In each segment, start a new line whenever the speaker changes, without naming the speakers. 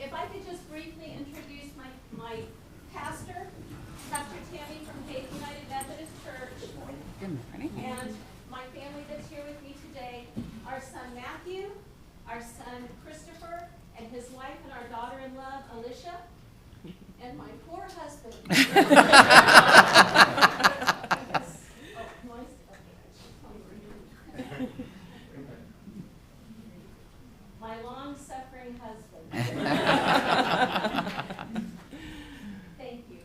If I could just briefly introduce my, my pastor, Dr. Tammy from Faith United Methodist Church,
Good morning.
and my family that's here with me today, our son Matthew, our son Christopher, and his wife and our daughter-in-law Alicia, and my poor husband. Oh, my- okay, I should probably remove. My long-suffering husband. Thank you.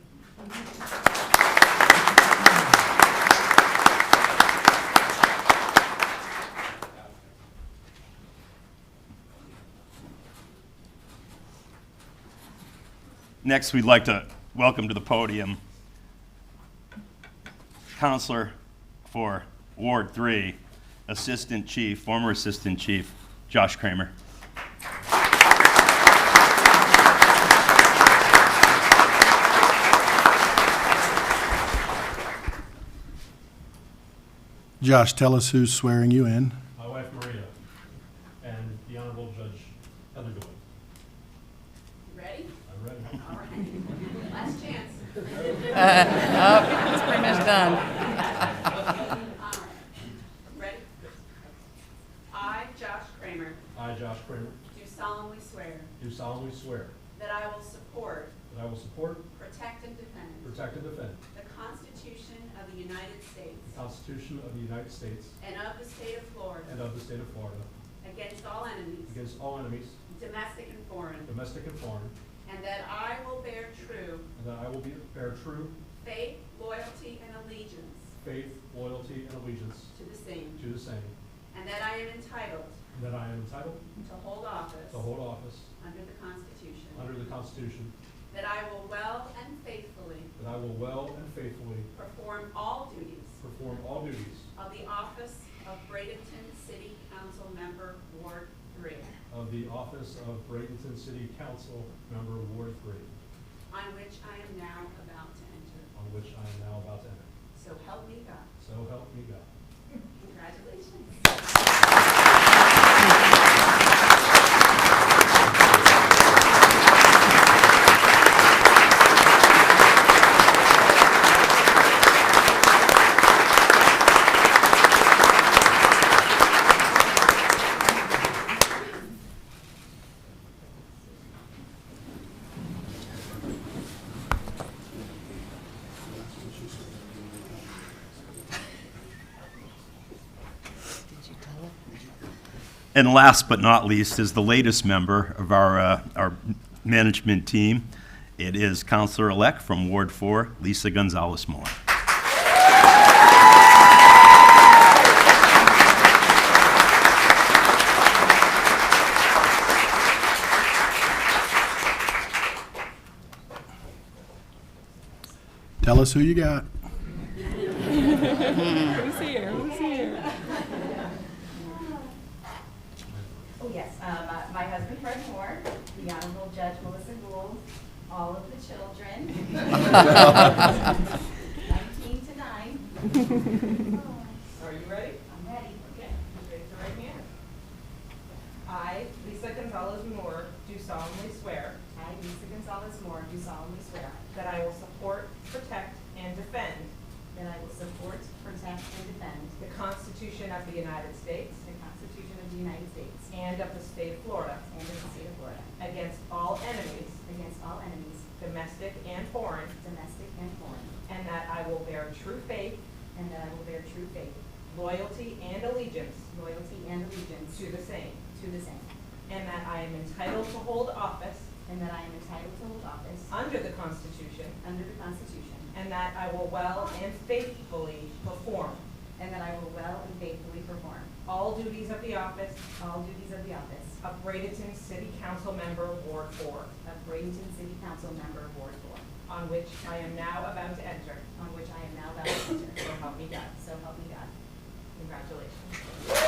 Next, we'd like to welcome to the podium Counselor for Ward 3, Assistant Chief, former Assistant Chief Josh Kramer.
Josh, tell us who's swearing you in.
my wife Maria, and the Honorable Judge Heather Doyle.
You Ready?
I'm ready.
All right. Last chance.
Uh, oh, It's pretty much done.
All right.
Ready? I, Josh Kramer,
I, Josh Kramer,
do solemnly swear
do solemnly swear
that I will support,
that I will support,
protect, and defend
protect, and defend
the Constitution of the United
the
States
Constitution of the United States
and of the state of
and
Florida
of the state of Florida
against all enemies,
against all enemies,
domestic and foreign,
domestic and foreign,
and that I will bear true
and that I will be bear true
faith, loyalty, and allegiance
faith, loyalty, and allegiance
to the same,
to the same,
and that I am entitled
and that I am entitled
to hold office
to hold office
under the Constitution,
under the Constitution,
that I will well and faithfully
that I will well and faithfully
perform all duties
perform all duties
of the office of Bradenton City Council Member, Ward Three,
of the office of Bradenton City Council Member Ward 3,
on which I am now about to enter.
on which I am now about to enter.
So help me God.
So help me God.
Congratulations.
And last but not least is the latest member of our, uh, our management team. It is Counselor-elect from Ward 4, Lisa Gonzalez Moore.
Tell us who you got.
Who's here? Who's here?
Oh, yes, uh, my- my husband Fred Moore, the Honorable Judge Melissa Gould, all of the children. Nineteen to nine.
Are you ready?
I'm ready.
Okay. Raise your right hand.
I, Lisa Gonzalez Moore, do solemnly swear
I, Lisa Gonzalez Moore, do solemnly swear
that I will support, protect, and defend
that I will support, protect, and defend
the Constitution of the United States
the Constitution of the United States
and of the state of Florida
and of the state of Florida
against all enemies,
against all enemies,
domestic and foreign,
domestic and foreign,
and that I will bear true faith,
and that I will bear true faith,
loyalty, and allegiance
loyalty, and allegiance
to the same,
to the same,
and that I am entitled to hold office
and that I am entitled to hold office
under the Constitution,
under the Constitution
and that I will well and faithfully perform
And that I will well and faithfully perform
all duties of the office
all duties of the office
of Bradenton City Council Member, Ward Four,
of Bradenton City Council Member Ward Four,
on which I am now about to enter.
on which I am now about to enter.
So help me God.
So help me God.
Congratulations.